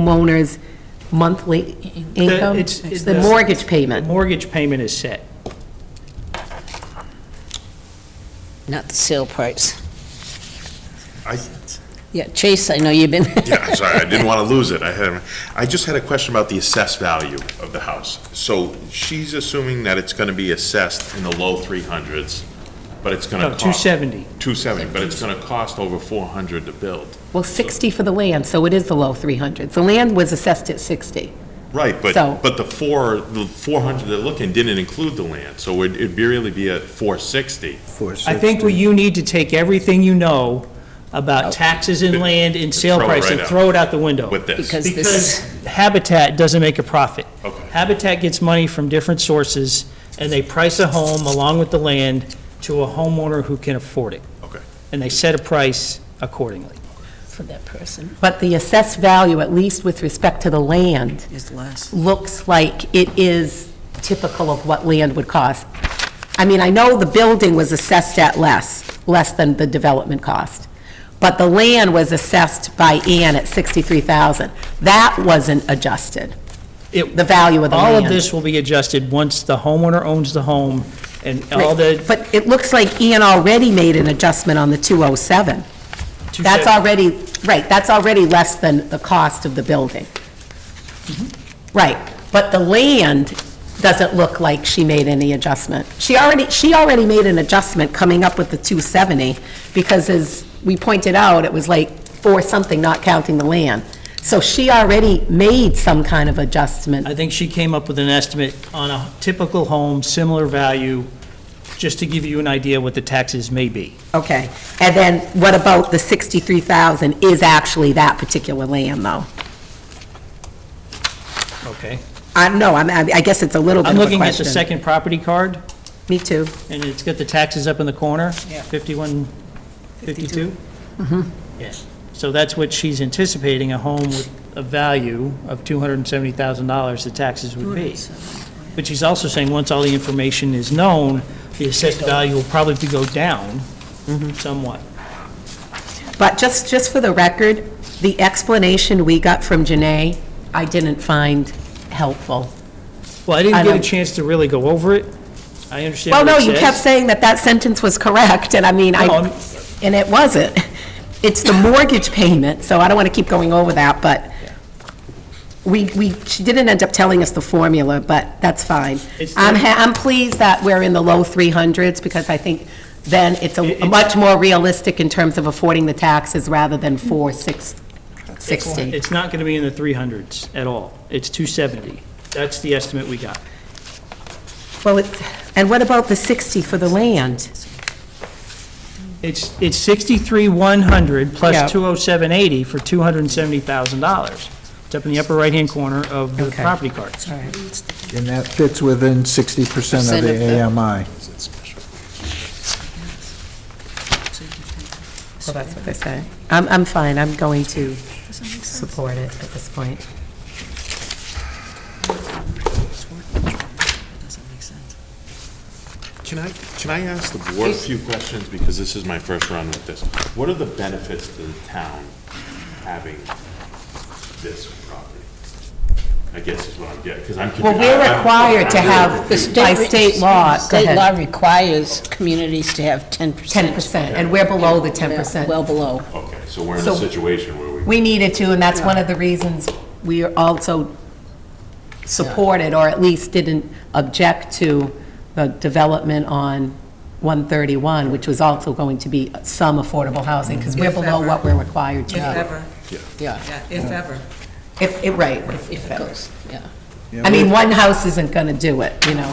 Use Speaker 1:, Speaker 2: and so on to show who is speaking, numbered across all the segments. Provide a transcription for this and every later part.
Speaker 1: homeowner's monthly income?
Speaker 2: it's- it's-
Speaker 1: The mortgage payment?
Speaker 2: Mortgage payment is set.
Speaker 3: Not the sale price.
Speaker 4: I,
Speaker 3: Yeah, Chase, I know you've been,
Speaker 4: yeah, I'm sorry, I didn't want to lose it. I had, I just had a question about the assessed value of the house. So she's assuming that it's going to be assessed in the low 300s, but it's going to
Speaker 2: No,
Speaker 4: cost...
Speaker 2: 270.
Speaker 4: 270, but it's going to cost over 400 to build.
Speaker 1: Well, 60 for the land, so it is the low 300s. The land was assessed at 60.
Speaker 4: Right, but,
Speaker 1: So-
Speaker 4: but the four, the 400 they're looking didn't include the land, so it'd it'd really be at 460.
Speaker 2: I think what you need to take everything you know about taxes and land and sale
Speaker 4: Throw it
Speaker 2: price and
Speaker 4: right out.
Speaker 2: throw it out the window.
Speaker 4: With this.
Speaker 3: Because this
Speaker 2: Because Habitat doesn't make a profit.
Speaker 4: Okay.
Speaker 2: Habitat gets money from different sources, and they price a home along with the land to a homeowner who can afford it.
Speaker 4: Okay.
Speaker 2: And they set a price accordingly.
Speaker 3: for that person,
Speaker 1: But the assessed value, at least with respect to the land,
Speaker 3: is less.
Speaker 1: looks like it is typical of what land would cost. I mean, I know the building was assessed at less, less than the development cost, but the land was assessed by Ann at 63,000. That wasn't adjusted,
Speaker 2: It-
Speaker 1: the value of the land.
Speaker 2: All of this will be adjusted once the homeowner owns the home and all the.
Speaker 1: But it looks like Ian already made an adjustment on the 207. That's
Speaker 2: 270
Speaker 1: already, right, that's already less than the cost of the building. Right, but the land doesn't look like she made any adjustment. She already, she already made an adjustment coming up with the 270, because as we pointed out, it was like four something, not counting the land. So she already made some kind of adjustment.
Speaker 2: I think she came up with an estimate on a typical home, similar value, just to give you an idea what the taxes may be.
Speaker 1: Okay, and then what about the 63,000 is actually that particular land, though?
Speaker 2: Okay.
Speaker 1: I, no, I'm, I I guess it's a little bit
Speaker 2: I'm
Speaker 1: of a
Speaker 2: looking at the
Speaker 1: question.
Speaker 2: second property card,
Speaker 1: Me too.
Speaker 2: and it's got the taxes up in the corner. Yeah. 51, 52? Mm-hmm. Yes. So that's what she's anticipating, a home with a value of $270,000, the taxes would be. But she's also saying, once all the information is known, the assessed value will probably go down
Speaker 1: Mm-hmm.
Speaker 2: somewhat.
Speaker 1: But just, just for the record, the explanation we got from Janae, I didn't find helpful.
Speaker 2: Well, I
Speaker 1: I
Speaker 2: didn't get a
Speaker 1: don't-
Speaker 2: chance to really go over it. I understand
Speaker 1: Well,
Speaker 2: what
Speaker 1: no,
Speaker 2: it
Speaker 1: you kept
Speaker 2: says.
Speaker 1: saying that that sentence was correct, and I mean, I,
Speaker 2: No, I'm-
Speaker 1: and it wasn't. It's the mortgage payment, so I don't want to keep going over that, but we, we, she didn't end up telling us the formula, but that's fine.
Speaker 2: It's
Speaker 1: I'm,
Speaker 2: the-
Speaker 1: ha- I'm pleased that we're in the low 300s, because I think then it's
Speaker 2: It-
Speaker 1: a
Speaker 2: it's-
Speaker 1: much more realistic in terms of affording the taxes rather than 460.
Speaker 2: It's not going to be in the 300s at all. It's 270. That's the estimate we got.
Speaker 1: Well, it's, and what about the 60 for the land?
Speaker 2: It's, it's 63,100
Speaker 1: Yeah.
Speaker 2: plus 20780 for $270,000. It's up in the upper right-hand corner of the
Speaker 1: Okay.
Speaker 2: property cards.
Speaker 5: And that fits within 60% of
Speaker 3: Percent of the-
Speaker 5: the AMI.
Speaker 1: Well, that's what they say. I'm, I'm fine, I'm going to support it at this point.
Speaker 4: Can I, can I ask the board a few questions, because this is my first run with this? What are the benefits to the town having this property? I guess is what I'm getting, because I'm.
Speaker 1: Well, we're required to have-
Speaker 3: The
Speaker 1: By state law, go
Speaker 3: State
Speaker 1: ahead.
Speaker 3: law requires communities to have 10%.
Speaker 1: 10%, and we're below the 10%.
Speaker 3: Well below.
Speaker 4: Okay, so we're in a
Speaker 1: So-
Speaker 4: situation where we,
Speaker 1: We needed to, and that's one of the reasons we are also supported, or at least didn't object to the development on 131, which was also going to be some affordable housing, because we're
Speaker 6: If
Speaker 1: below
Speaker 6: ever.
Speaker 1: what we're required to
Speaker 6: If
Speaker 1: do.
Speaker 6: ever,
Speaker 3: Yeah,
Speaker 6: yeah, if ever.
Speaker 1: If, if- right.
Speaker 3: if it goes, yeah.
Speaker 1: I mean, one house isn't going to do it, you know?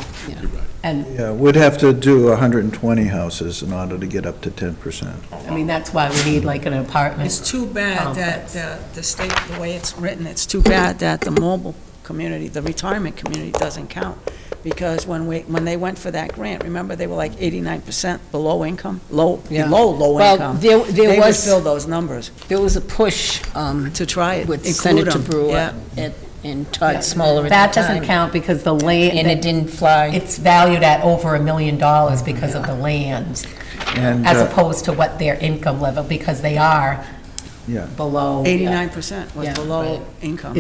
Speaker 1: And,
Speaker 5: Yeah, we'd have to do 120 houses in order to get up to 10%.
Speaker 1: I mean, that's why we need like an apartment.
Speaker 6: It's too bad that the the state, the way it's written, it's too bad that the mobile community, the retirement community doesn't count. Because when we, when they went for that grant, remember, they were like 89% below income, low,
Speaker 3: Yeah.
Speaker 6: below low
Speaker 3: Well,
Speaker 6: income.
Speaker 3: there- there
Speaker 6: They would
Speaker 3: was-
Speaker 6: fill those numbers
Speaker 3: There was a push um,
Speaker 6: to try it,
Speaker 3: with
Speaker 6: include
Speaker 3: Senator
Speaker 6: them.
Speaker 3: Brewer
Speaker 6: Yeah.
Speaker 3: and- and Todd Smaller at the
Speaker 1: That doesn't
Speaker 3: time,
Speaker 1: count because the land.
Speaker 3: And it didn't fly.
Speaker 1: It's valued at over a million dollars because of the land,
Speaker 5: And,
Speaker 1: as
Speaker 5: uh,
Speaker 1: opposed to what their income level, because they are
Speaker 5: Yeah.
Speaker 1: below. yeah.
Speaker 6: Eighty-nine percent was
Speaker 1: Yeah,
Speaker 6: below
Speaker 1: right.
Speaker 6: income.